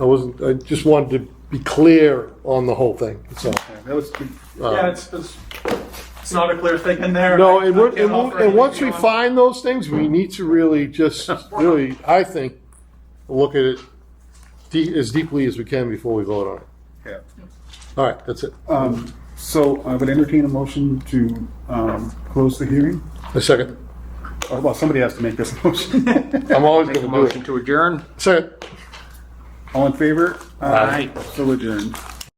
I wasn't, I just wanted to be clear on the whole thing, so. That was, uh, yeah, it's, it's, it's not a clear thing in there. No, I- and I we're, can't and, offer we'll- and once we anything on- find those things, we need to really just, really, I think, look at it de- as deeply as we can before we vote on it. Yeah. All right, that's it. Uh. Um, So I would entertain a motion to um, close the hearing. A second. Oh, Well, somebody has to make this motion. I'm always Make a gonna do motion it. to adjourn? Second. All in favor? Aye. So adjourned.